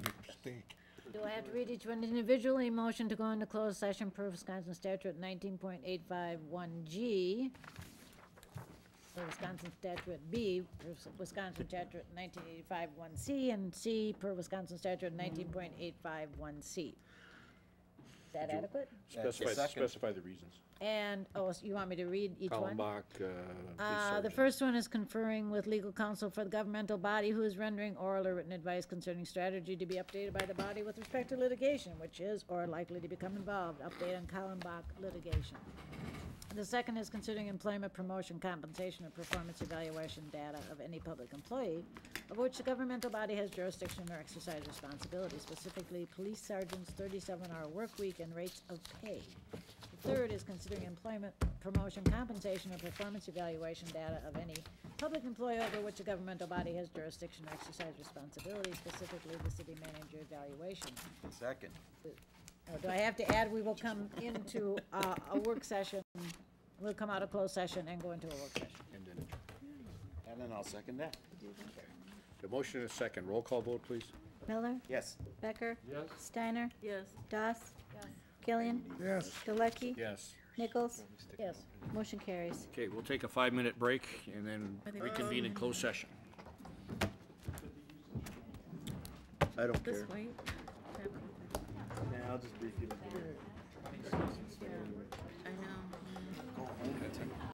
Do I have to read each one individually? Motion to go into closed session per Wisconsin statute nineteen point eight five one G. For Wisconsin statute B, per Wisconsin statute nineteen eighty-five one C, and C per Wisconsin statute nineteen point eight five one C. Is that adequate? Specify, Second. specify the reasons. And, oh, so you want me to read each one? Kalmbach, uh, police Uh, the sergeant. first one is conferring with legal counsel for the governmental body who is rendering oral or written advice concerning strategy to be updated by the body with respect to litigation, which is or likely to become involved, update on Kallenbach litigation. The second is considering employment promotion compensation or performance evaluation data of any public employee of which the governmental body has jurisdiction or exercise responsibility, specifically police sergeants' thirty-seven hour work week and rates of pay. The third is considering employment promotion compensation or performance evaluation data of any public employee over which a governmental body has jurisdiction or exercise responsibility, specifically the city manager evaluation. Second. Oh, Do I have to add, we will come into uh, a work session, we'll come out of closed session and go into a work session. And then And then I'll second that. The motion is second. Roll call vote, please. Miller? Yes. Becker? Yes. Steiner? Yes. Doss? Killian? Yes. Galecki? Yes. Nichols? Yes. Motion carries. Okay, we'll take a five-minute break and then reconvene in closed session. I don't This way. I'll just brief you. I know.